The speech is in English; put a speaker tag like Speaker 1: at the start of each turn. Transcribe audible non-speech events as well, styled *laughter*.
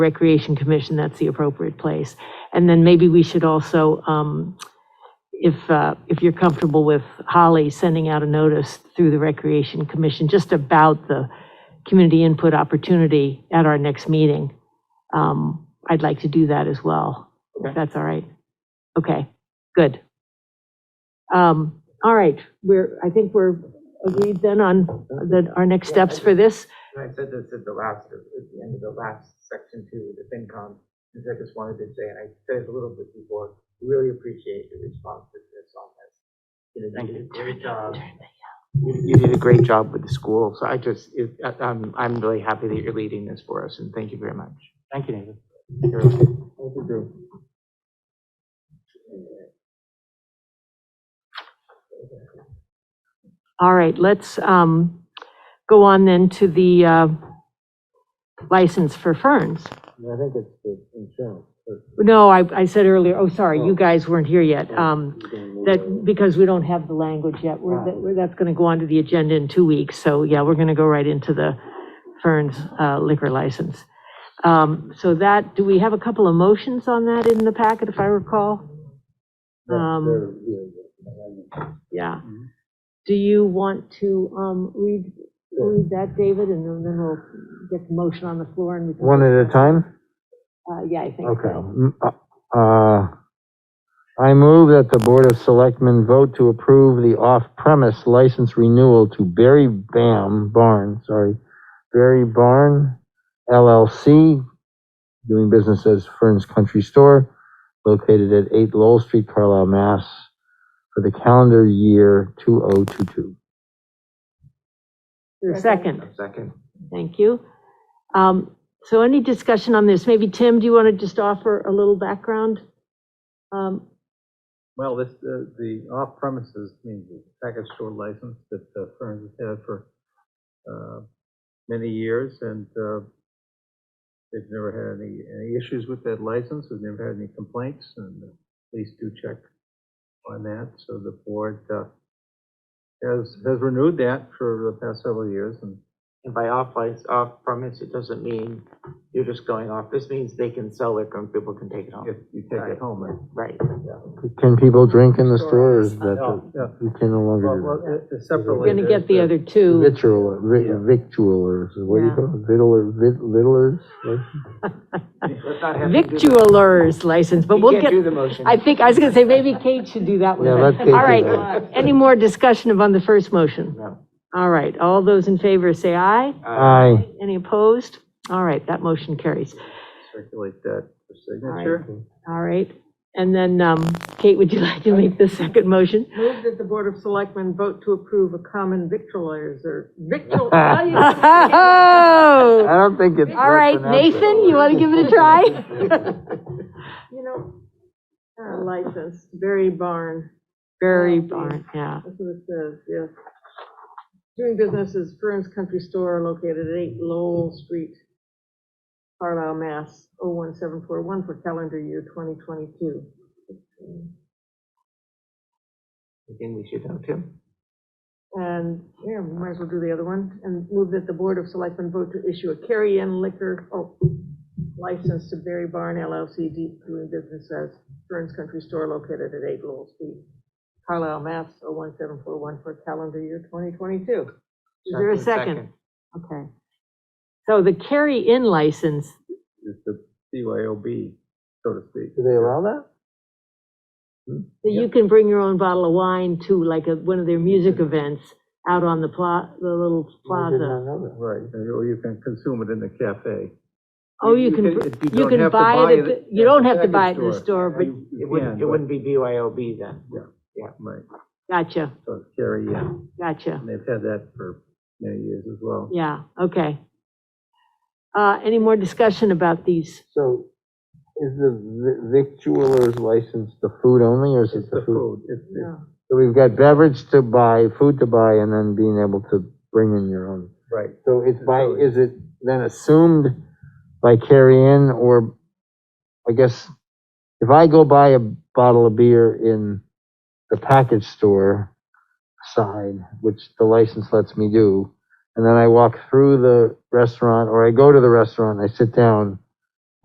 Speaker 1: Recreation Commission, that's the appropriate place. And then maybe we should also, um, if, uh, if you're comfortable with Holly sending out a notice through the Recreation Commission, just about the community input opportunity at our next meeting, um, I'd like to do that as well, if
Speaker 2: Okay.
Speaker 1: that's all right. Okay, good. Um, All right, we're, I think we're agreed then on the, our next steps for this.
Speaker 2: And I said this at the last, at the end of the last section too, the FinCom, because I just wanted to say, and I said it a little bit before, really appreciate your responsiveness on this. You know, you did a great job. You you did a great job with the school, so I just, it- I- I'm, I'm really happy that you're leading this for us, and thank you very much.
Speaker 3: Thank you, David.
Speaker 2: Thank you, Drew.
Speaker 1: All right, let's um, go on then to the uh, license for ferns.
Speaker 3: I think it's the insurance.
Speaker 1: No, I, I said earlier, oh, sorry, you guys weren't here yet.
Speaker 4: Oh.
Speaker 1: Um, That,
Speaker 3: That.
Speaker 1: because we don't have the language yet, we're, that- we're- that's going to go onto the agenda in two weeks. So, yeah, we're going to go right into the Ferns uh, liquor license. Um, So that, do we have a couple of motions on that in the packet, if I recall? Um, Yeah.
Speaker 4: Mm-hmm.
Speaker 3: Mhm.
Speaker 1: Do you want to um, read, read that, David, and then- then we'll get the motion on the floor and we can.
Speaker 4: One at a time?
Speaker 1: Uh, Yeah, I think
Speaker 4: Okay.
Speaker 1: so.
Speaker 4: Mm, uh, uh, I move that the Board of Selectmen vote to approve the off-premise license renewal to Berry Bam Barn, sorry, Berry Barn LLC, doing business as Fern's Country Store, located at 8 Lowell Street, Carlisle, Mass, for the calendar year 2022.
Speaker 1: Your Second.
Speaker 2: Second.
Speaker 1: Thank you. Um, So any discussion on this? Maybe, Tim, do you want to just offer a little background? Um,
Speaker 5: Well, this, the, the off-premises means the package store license that uh, Ferns has had for, uh, many years, and, uh, they've never had any, any issues with that license, we've never had any complaints, and the police do check on that, so the board, uh, has, has renewed that for the past several years, and
Speaker 2: And by off license, off premise, it doesn't mean you're just going off, this means they can sell liquor and people can take it home.
Speaker 5: if you take it home, and
Speaker 2: Right.
Speaker 4: Can people drink in the store, or is
Speaker 1: Store.
Speaker 4: that,
Speaker 5: Yeah,
Speaker 4: you can no
Speaker 5: well,
Speaker 4: longer do that?
Speaker 5: well, it- it's separately.
Speaker 1: We're going to get the
Speaker 5: there's
Speaker 1: other two.
Speaker 4: Victual, vi-
Speaker 5: Yeah.
Speaker 4: victualers, what do you
Speaker 1: Yeah. Uh,
Speaker 4: call it, Vittler- vit- vittlers?
Speaker 2: Let's not have to do the-
Speaker 1: Victualler's license, but
Speaker 2: You
Speaker 1: we'll
Speaker 2: can't
Speaker 1: get,
Speaker 2: do the motion.
Speaker 1: I think, I was going to say, maybe Kate should do that one.
Speaker 4: Yeah, let Kate do
Speaker 1: All right,
Speaker 4: that.
Speaker 1: any more discussion on the first motion?
Speaker 2: No.
Speaker 1: All right, all those in favor say aye.
Speaker 4: Aye,
Speaker 1: Any opposed? All right, that motion carries.
Speaker 5: Circulate that for signature.
Speaker 1: All right, and then, um, Kate, would you *laughs* like to make the second motion?
Speaker 6: Move that the Board of Selectmen vote to approve a common victualers or victual. how do
Speaker 1: *laughs*
Speaker 6: you-
Speaker 1: *laughs* Oh!
Speaker 4: I don't think it's.
Speaker 1: All right, Nathan, you want to give it a *laughs* try?
Speaker 6: You know, uh, license, Berry Barn,
Speaker 1: Very barn, yeah.
Speaker 6: that's what it says, yes. Doing business is Fern's Country Store located at 8 Lowell Street, Carlisle, Mass. 01741 for calendar year 2022.
Speaker 2: Again, we should have Tim.
Speaker 6: And, yeah, we might as well do the other one, and move that the Board of Selectmen vote to issue a carry-in liquor, oh, license to Berry Barn LLC de- doing business as Burns Country Store located at 8 Lowell Street, Carlisle, Mass. 01741 for calendar year 2022.
Speaker 1: Is there a second? Okay. So the carry-in license,
Speaker 5: is the BYOB, so to speak.
Speaker 4: Do they allow that?
Speaker 1: that you can bring your own bottle of wine to like a, one of their music events out on the pla, the little plaza.
Speaker 5: Right, or you can consume it in the cafe.
Speaker 1: Oh, you can,
Speaker 5: if
Speaker 1: br-
Speaker 5: don't
Speaker 1: you can
Speaker 5: have to
Speaker 1: buy it, at the-
Speaker 5: at
Speaker 1: you
Speaker 5: the
Speaker 1: don't have to
Speaker 5: package
Speaker 1: buy it in the store, but,
Speaker 5: You
Speaker 2: It wouldn't,
Speaker 5: can,
Speaker 2: it
Speaker 5: but-
Speaker 2: wouldn't be BYOB then.
Speaker 5: Right,
Speaker 1: gotcha,
Speaker 5: so it's carry in,
Speaker 1: gotcha.
Speaker 5: and they've had that for many years as well.
Speaker 1: Yeah, okay. Uh, any more discussion about these?
Speaker 4: So is the vi- victualers license the food only, or is
Speaker 5: It's
Speaker 4: it
Speaker 5: the food, it's, it's-
Speaker 6: Yeah.
Speaker 4: So we've got beverage to buy, food to buy, and then being able to bring in your own.
Speaker 5: right,
Speaker 4: So it's by,
Speaker 5: Food.
Speaker 4: is it then assumed by carry-in, or I guess if I go buy a bottle of beer in the package store side, which the license lets me do, and then I walk through the restaurant, or I go to the restaurant, and I sit down,